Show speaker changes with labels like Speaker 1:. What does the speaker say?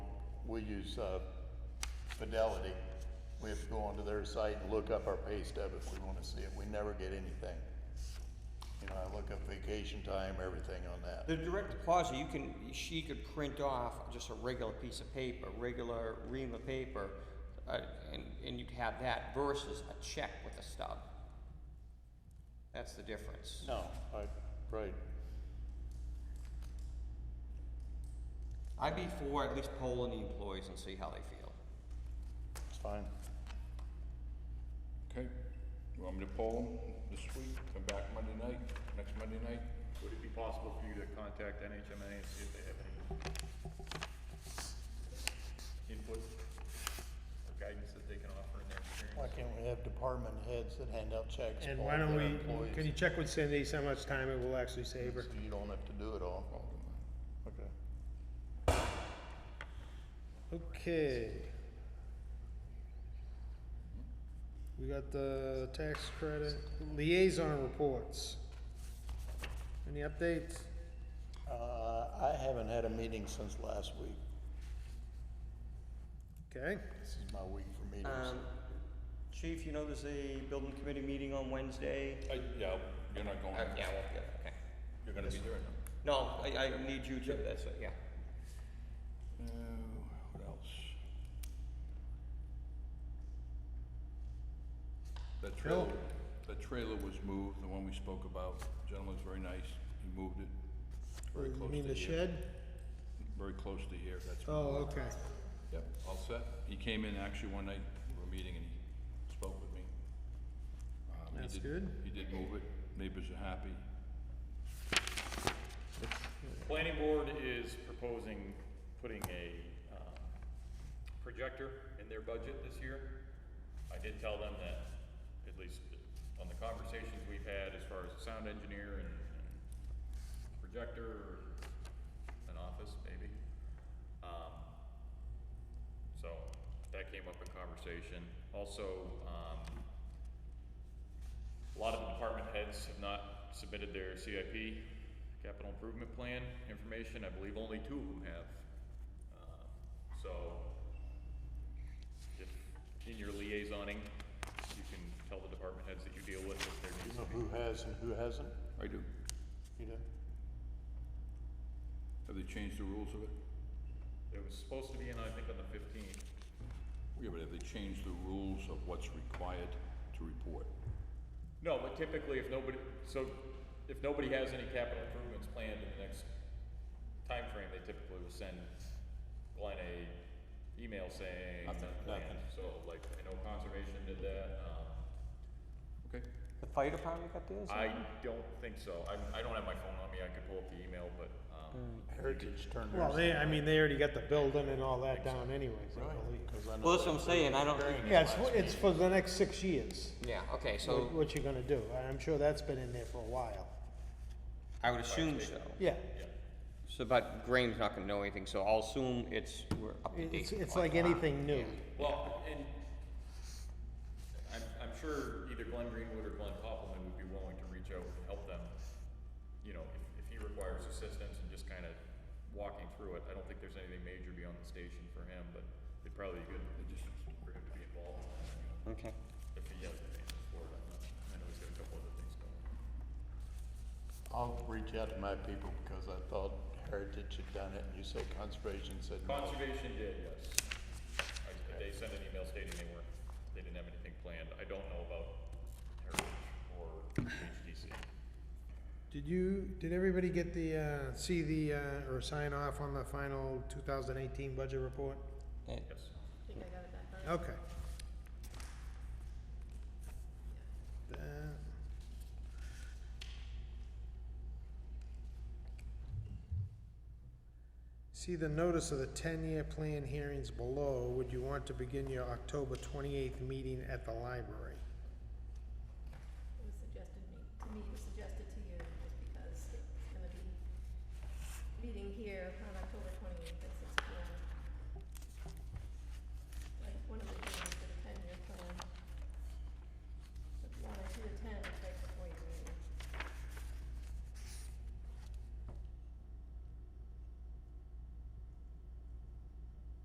Speaker 1: we use, uh, Fidelity. We have to go onto their site and look up our pay stub if we wanna see it. We never get anything. You know, I look up vacation time, everything on that.
Speaker 2: The direct deposit, you can, she could print off just a regular piece of paper, regular ream of paper, uh, and, and you'd have that versus a check with a stub. That's the difference.
Speaker 1: No, I, right.
Speaker 2: I'd be for at least polling the employees and see how they feel.
Speaker 1: It's fine.
Speaker 3: Okay, you want me to poll them this week, come back Monday night, next Monday night?
Speaker 4: Would it be possible for you to contact NHMA and see if they have any input or guidance that they can offer in their
Speaker 1: Why
Speaker 4: experience?
Speaker 1: can't we have department heads that hand out checks to
Speaker 5: And
Speaker 1: all
Speaker 5: why
Speaker 1: their
Speaker 5: don't
Speaker 1: employees?
Speaker 5: we, can you check with Cindy, see how much time it will actually save her?
Speaker 1: So you don't have to do it all. Okay.
Speaker 5: Okay. We got the tax credit liaison reports. Any updates?
Speaker 1: Uh, I haven't had a meeting since last week.
Speaker 5: Okay,
Speaker 1: This is my week for meetings.
Speaker 2: Um, Chief, you know there's a building committee meeting on Wednesday?
Speaker 3: I, yeah, you're not going,
Speaker 2: Uh, yeah, I won't be there, okay.
Speaker 3: you're gonna be there now.
Speaker 2: No, I, I need you to, that's, it, yeah.
Speaker 3: Uh, what else? The trailer, the trailer was moved, the one we spoke about, gentleman's very nice, he moved it very
Speaker 5: you
Speaker 3: close to here.
Speaker 5: mean the shed?
Speaker 3: Very close to here, that's.
Speaker 5: Oh, okay,
Speaker 3: Yep, all set. He came in actually one night, we were meeting and he spoke with me. Um, he
Speaker 5: That's
Speaker 3: did-
Speaker 5: good.
Speaker 3: He did move it, neighbors are happy.
Speaker 4: Planning board is proposing putting a, um, projector in their budget this year. I did tell them that, at least on the conversations we've had as far as the sound engineer and, and projector, or an office maybe. Um, so, that came up in conversation. Also, um, a lot of the department heads have not submitted their CIP, capital improvement plan information, I believe only two of them have. Uh, So, if, in your liaisoning, you can tell the department heads that you deal with if there
Speaker 1: You
Speaker 4: needs
Speaker 1: know
Speaker 4: to
Speaker 1: who
Speaker 4: be.
Speaker 1: has and who hasn't?
Speaker 3: I do.
Speaker 1: You do?
Speaker 3: Have they changed the rules of it?
Speaker 4: It was supposed to be in, I think, on the fifteenth,
Speaker 3: Yeah, but have they changed the rules of what's required to report?
Speaker 4: No, but typically if nobody, so if nobody has any capital improvements planned in the next time frame, they typically will send Glenn a email saying,
Speaker 3: Nothing,
Speaker 4: not planned.
Speaker 3: nothing.
Speaker 4: So like, I know conservation did that, um,
Speaker 3: Okay,
Speaker 2: The fire department got theirs?
Speaker 4: I don't think so. I, I don't have my phone on me, I could pull up the email, but, um,
Speaker 1: Heritage turned
Speaker 5: well,
Speaker 1: theirs
Speaker 5: they, I mean, they already got the building and all that down anyways,
Speaker 1: in.
Speaker 5: I believe.
Speaker 1: Because I know
Speaker 2: Well, that's what
Speaker 1: they-
Speaker 2: I'm saying, I don't,
Speaker 5: Yeah, it's, it's for the next six years,
Speaker 2: yeah, okay, so
Speaker 5: what what you're gonna do, I'm sure that's been in there for a while,
Speaker 2: I would assume so.
Speaker 5: yeah.
Speaker 2: So, but Graham's not gonna know anything, so I'll assume it's, we're up to date.
Speaker 5: It's, it's
Speaker 2: on
Speaker 5: like
Speaker 2: that.
Speaker 5: anything new,
Speaker 4: well, and I'm, I'm sure either Glenn Greenwood or Glenn Copeland would be willing to reach out and help them. You know, if, if he requires assistance and just kinda walking through it, I don't think there's anything major beyond the station for him, but it'd probably be good just for him to be involved. you know,
Speaker 2: Okay.
Speaker 4: If he has any support, I'm not, I know he's got a couple other things going. on.
Speaker 1: I'll reach out to my people because I thought Heritage had done it and you said Conservation said no.
Speaker 4: Conservation did, yes. I, they sent an email stating they weren't, they didn't have anything planned. I don't know about Heritage or HDC.
Speaker 5: Did you, did everybody get the, uh, see the, uh, or sign off on the final two thousand eighteen budget report?
Speaker 2: And-
Speaker 4: Yes.
Speaker 5: Okay. That- See the notice of the ten-year plan hearings below, would you want to begin your October twenty-eighth meeting at the library?
Speaker 6: It was suggested me, to me, it was suggested to you, just because it's gonna be meeting here on